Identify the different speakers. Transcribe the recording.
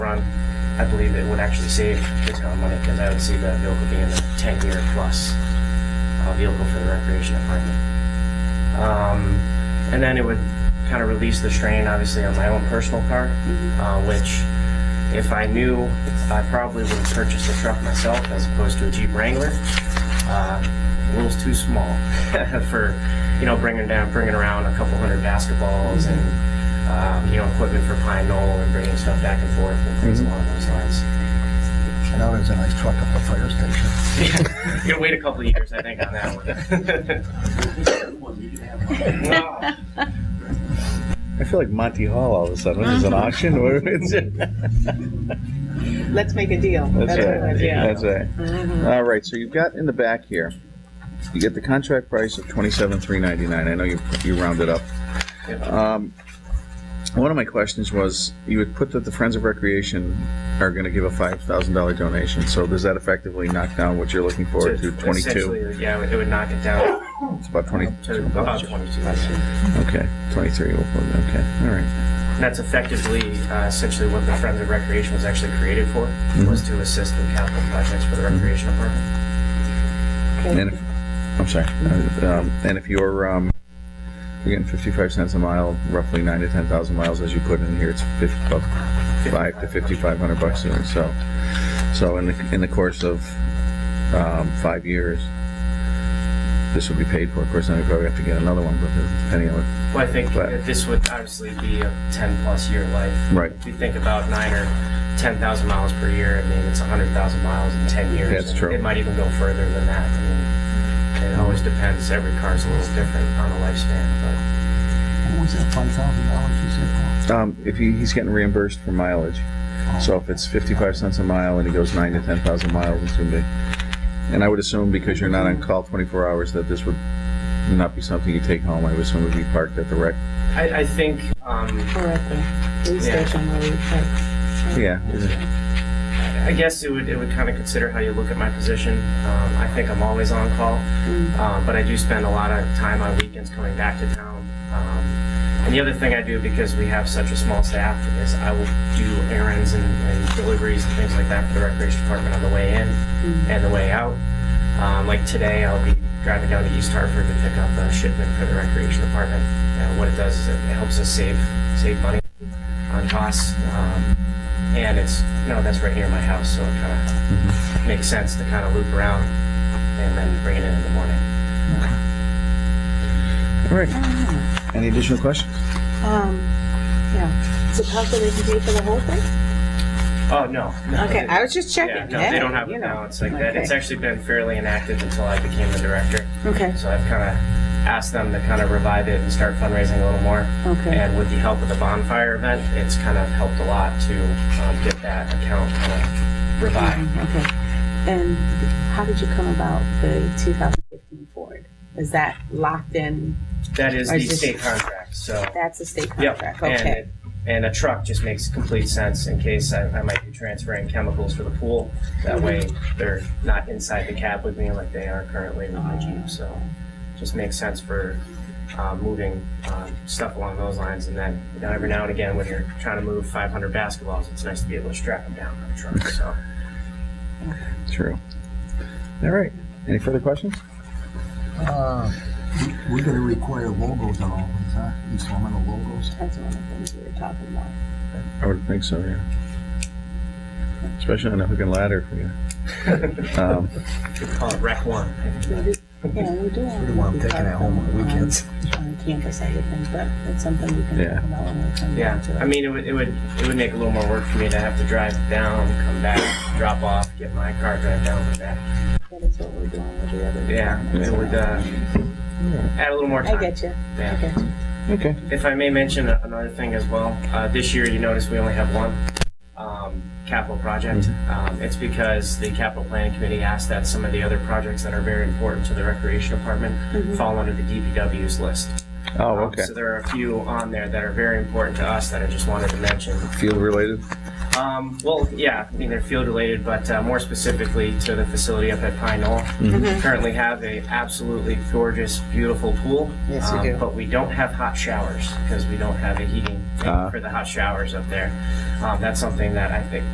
Speaker 1: on, I believe it would actually save the town money because I would see that vehicle being a ten-year plus uh, vehicle for the recreation department. Um, and then it would kind of release the strain, obviously, on my own personal car, uh, which if I knew, I probably would have purchased a truck myself as opposed to a Jeep Wrangler. Uh, a little too small for, you know, bringing down, bringing around a couple hundred basketballs and, um, you know, equipment for Pine Knoll and bringing stuff back and forth and things along those lines.
Speaker 2: Now there's a nice truck up the fire station.
Speaker 1: Gonna wait a couple of years, I think, on that one. No.
Speaker 3: I feel like Monty Hall all of a sudden. Is an auction? Where is it?
Speaker 4: Let's make a deal.
Speaker 3: That's
Speaker 4: what it
Speaker 3: right.
Speaker 4: was, yeah.
Speaker 3: That's right. All right. So you've got in the back here, you get the contract price of twenty-seven three ninety-nine. I know you you rounded up.
Speaker 1: Yep.
Speaker 3: Um, one of my questions was you had put that the Friends of Recreation are going to give a five thousand dollar donation. So does that effectively knock down what you're looking for to twenty-two?
Speaker 1: Essentially, Yeah, it would knock it down
Speaker 3: It's about
Speaker 1: to
Speaker 3: twenty-two.
Speaker 1: about twenty-two. And
Speaker 3: Okay, twenty-three. we'll put- Okay, all right.
Speaker 1: that's effectively, uh, essentially what the Friends of Recreation was actually created for,
Speaker 3: Mm-hmm.
Speaker 1: was to assist with capital projects for the recreation department.
Speaker 3: And if, I'm sorry. Um, and if you're um, you're getting 55 cents a mile, roughly nine to 10,000 miles, as you put in here, it's 50, about five to 5,500 bucks. a year. So, so in the in the course of um, five years, this will be paid for. Of course, then we probably have to get another one, but depending on what,
Speaker 1: Well, I think
Speaker 3: But-
Speaker 1: that this would obviously be a 10 plus year life.
Speaker 3: Right.
Speaker 1: If you think about nine or 10,000 miles per year, I mean, it's 100,000 miles in 10 years.
Speaker 3: That's
Speaker 1: and
Speaker 3: true.
Speaker 1: It might even go further than that. I mean, it always
Speaker 3: Mm-hmm.
Speaker 1: depends. Every car's a little different on the lifespan,
Speaker 2: What was that, five thousand dollars you said?
Speaker 3: um, if he, he's getting reimbursed for mileage. So if it's 55 cents a mile and he goes nine to 10,000 miles, it's going to be. And I would assume because you're not on call 24 hours that this would not be something you take home. I would assume it would be parked at the rec.
Speaker 1: but I, I think, um,
Speaker 4: Or at the police
Speaker 1: Yeah.
Speaker 4: station where we park.
Speaker 3: Yeah.
Speaker 1: I guess it would, it would kind of consider how you look at my position. Um, I think I'm always on call, uh, but I do spend a lot of time on weekends coming back to town. Um, and the other thing I do, because we have such a small staff, is I will do errands and, and deliveries and things like that for the recreation department on the way in and the way out. Um, like today, I'll be driving down to East Hartford to pick up a shipment for the recreation department. And what it does is it helps us save save money on costs. Um, and it's you know that's right near my house, so it kind of makes sense to kind of loop around and then bring it in in the morning.
Speaker 3: All right. Any additional questions?
Speaker 4: Um, yeah. Is it possible they can pay for the whole thing?
Speaker 1: Oh no. no
Speaker 4: Okay,
Speaker 1: they-
Speaker 4: I was just
Speaker 1: yeah,
Speaker 4: checking.
Speaker 1: no,
Speaker 4: Hey,
Speaker 1: they don't have
Speaker 4: you
Speaker 1: it
Speaker 4: know.
Speaker 1: now. It's like that.
Speaker 4: Okay.
Speaker 1: It's actually been fairly inactive until I became the director.
Speaker 4: Okay,
Speaker 1: So I've kind of asked them to kind of revive it and start fundraising a little more.
Speaker 4: Okay.
Speaker 1: And with the help of the bonfire event, it's kind of helped a lot to um, get that account kind of revived.
Speaker 4: Mm-hmm. okay. And how did you come about the 2015 Ford? Is that locked in?
Speaker 1: That is
Speaker 4: I
Speaker 1: the
Speaker 4: just-
Speaker 1: state contract. So
Speaker 4: That's a state
Speaker 1: Yep,
Speaker 4: contract,
Speaker 1: and,
Speaker 4: okay.
Speaker 1: it- and a truck just makes complete sense in case I, I might be transferring chemicals for the pool.
Speaker 4: Mm-hmm.
Speaker 1: That way, they're not inside the cab with me like they are currently with my Jeep, so just makes sense for, uh, moving, um, stuff along those lines. And then, you know, every now and again, when you're trying to move five hundred basketballs, it's nice to be able to strap them down on a truck, so.
Speaker 3: True. All right. Any further questions?
Speaker 2: Uh, we- We're gonna require logos on all these, huh? Instrumental logos.
Speaker 4: That's one of the things we were talking about.
Speaker 3: I would think so, yeah. Especially on a hook and ladder for you. Um,
Speaker 1: Call it Rec One.
Speaker 4: We do- Yeah, we do.
Speaker 2: Pretty well, I'm taking it home on
Speaker 4: um,
Speaker 2: the weekends.
Speaker 4: On campus, I would think, but it's something we can
Speaker 3: Yeah.
Speaker 4: talk about when we come
Speaker 1: Yeah,
Speaker 4: down to it.
Speaker 1: I mean, it would, it would, it would make a little more work for me to have to drive down, come back, drop off, get my car, drive down, come back.
Speaker 4: That is what we're doing with the other.
Speaker 1: Yeah,
Speaker 4: departments.
Speaker 1: it would uh, add a little more time.
Speaker 4: I get you. I
Speaker 1: Yeah.
Speaker 4: get you.
Speaker 3: okay.
Speaker 1: If I may mention a- another thing as well, uh, this year you notice we only have one um, capital project.
Speaker 4: Mm-hmm.
Speaker 1: Um, it's because the capital planning committee asked that some of the other projects that are very important to the recreation department
Speaker 4: Mm-hmm.
Speaker 1: fall under the DPW's list.
Speaker 3: Oh,
Speaker 1: Um,
Speaker 3: okay.
Speaker 1: So there are a few on there that are very important to us that I just wanted to mention.
Speaker 3: Field related?
Speaker 1: Um, well, yeah, I mean, they're field related, but uh, more specifically to the facility up at Pine Knoll.
Speaker 5: Mm-hmm.
Speaker 1: We currently have a absolutely gorgeous, beautiful pool. Um,
Speaker 5: Yes, we do.
Speaker 1: But we don't have hot showers because we don't have a heating thing
Speaker 3: Ah.
Speaker 1: for the hot showers up there. Um, that's something that I think